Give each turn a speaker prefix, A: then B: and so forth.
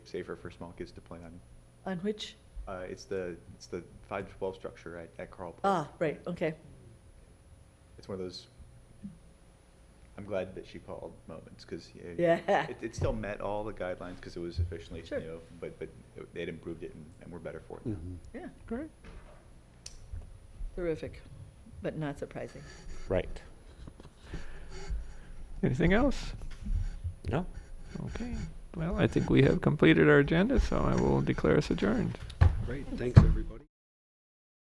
A: safer for small kids to play on.
B: On which?
A: Uh, it's the, it's the five to twelve structure at, at Carl Park.
B: Ah, right, okay.
A: It's one of those, I'm glad that she called moments, because.
B: Yeah.
A: It, it still met all the guidelines, because it was officially,
B: Sure.
A: you know, but, but it- they'd improved it and, and we're better for it now.
B: Yeah,
C: Great.
B: terrific, but not surprising.
C: Right. Anything else?
D: No?
C: Okay. Well, I think we have completed our agenda, so I will declare us adjourned.
E: Great, thanks, everybody.